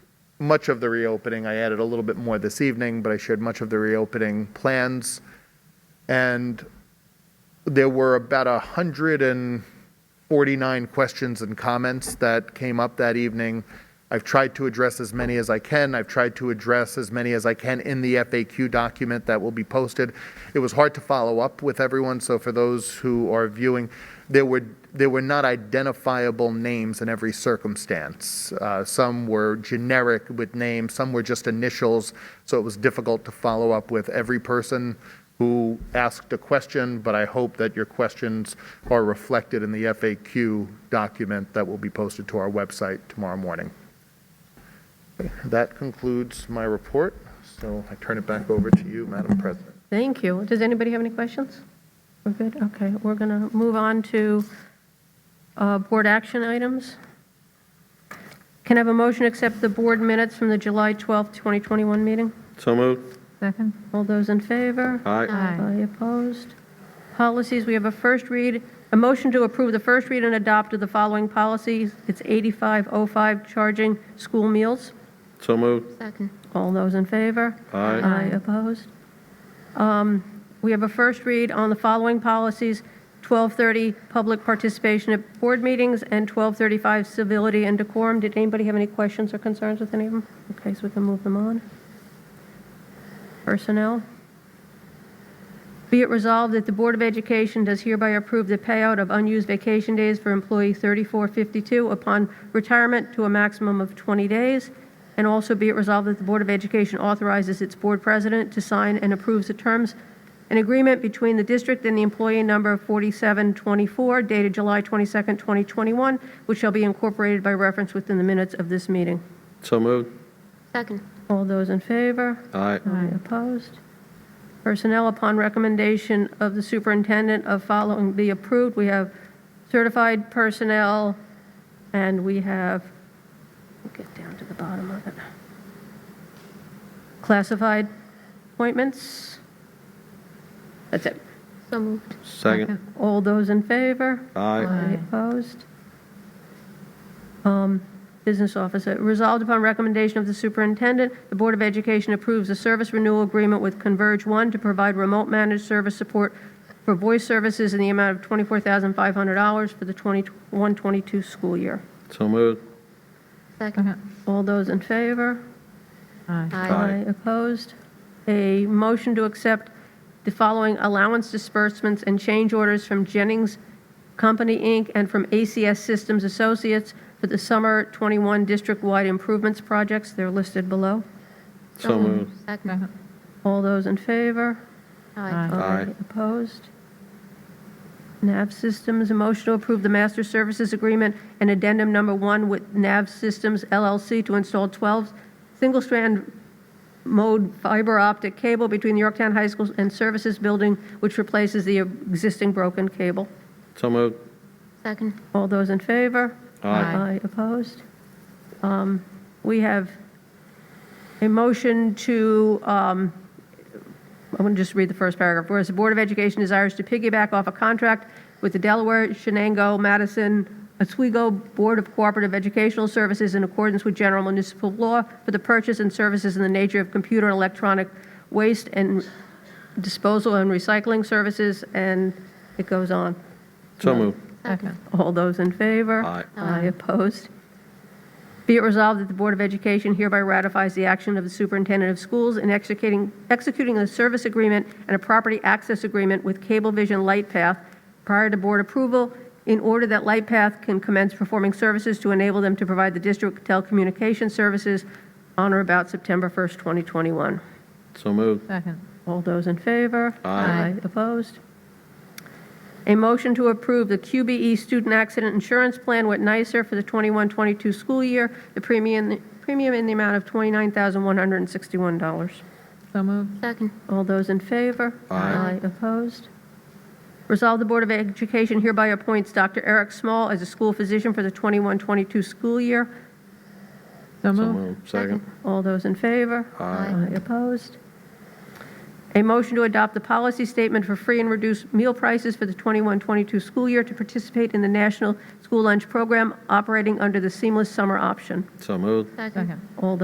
much of the reopening. I added a little bit more this evening, but I shared much of the reopening plans. And there were about 149 questions and comments that came up that evening. I've tried to address as many as I can. I've tried to address as many as I can in the FAQ document that will be posted. It was hard to follow up with everyone, so for those who are viewing, there were there were not identifiable names in every circumstance. Uh, some were generic with names, some were just initials, so it was difficult to follow up with every person who asked a question, but I hope that your questions are reflected in the FAQ document that will be posted to our website tomorrow morning. That concludes my report, so I turn it back over to you, Madam President. Thank you. Does anybody have any questions? We're good? Okay, we're going to move on to uh, board action items. Can I have a motion to accept the board minutes from the July 12th, 2021 meeting? So moved. Second? All those in favor? Aye. Aye opposed? Policies, we have a first read, a motion to approve the first read and adopt of the following policies. It's 8505, charging school meals. So moved. Second. All those in favor? Aye. Aye opposed. Um, We have a first read on the following policies, 1230, public participation at board meetings, and 1235, civility and decorum. Did anybody have any questions or concerns with any of them? Okay, so we can move them on. Personnel. Be it resolved that the Board of Education does hereby approve the payout of unused vacation days for employee 3452 upon retirement to a maximum of 20 days. And also be it resolved that the Board of Education authorizes its board president to sign and approves the terms an agreement between the district and the employee number 4724 dated July 22nd, 2021, which shall be incorporated by reference within the minutes of this meeting. So moved. Second. All those in favor? Aye. Aye. Opposed? Personnel, upon recommendation of the superintendent of following be approved, we have certified personnel, and we have, let me get down to the bottom of it, classified appointments. That's it. So moved. Second. All those in favor? Aye. Any Opposed? Um, Business officer, resolved upon recommendation of the superintendent, the Board of Education approves a service renewal agreement with Converge One to provide remote managed service support for voice services in the amount of $24,500 for the 21-22 school year. So moved. Second. All those in favor? Aye. Aye. Opposed? A motion to accept the following allowance disbursements and change orders from Jennings Company, Inc., and from ACS Systems Associates for the Summer 21 District-Wide Improvements Projects. They're listed below. So moved. Second. All those in favor? Aye. Aye. Opposed? NAV Systems, a motion to approve the master services agreement and addendum number one with NAV Systems LLC to install 12 single-strand mode fiber optic cable between Yorktown High School and Services Building, which replaces the existing broken cable. So moved. Second. All those in favor? Aye. Aye, opposed? Um, We have a motion to, um, I'm going to just read the first paragraph. Whereas the Board of Education desires to piggyback off a contract with the Delaware, Shenango, Madison, Oswego Board of Cooperative Educational Services in accordance with general municipal law for the purchase and services in the nature of computer and electronic waste and disposal and recycling services, and it goes on. So moved. Second. All those in favor? Aye. Aye opposed. Be it resolved that the Board of Education hereby ratifies the action of the Superintendent of Schools in executing, executing a service agreement and a property access agreement with Cablevision LightPath prior to board approval in order that LightPath can commence performing services to enable them to provide the district telecommunication services on or about September 1st, 2021. So moved. Second. All those in favor? Aye. Opposed? A motion to approve the QBE Student Accident Insurance Plan with NYSER for the 21-22 school year, the premium, premium in the amount of $29,161. So moved. Second. All those in favor? Aye. Opposed? Resolve the Board of Education hereby appoints Dr. Eric Small as a school physician for the 21-22 school year. So So moved. moved. Second. All those in favor? Aye. Aye opposed? A motion to adopt the policy statement for free and reduced meal prices for the 21-22 school year to participate in the National School Lunch Program operating under the Seamless Summer Option. So moved. Second. All those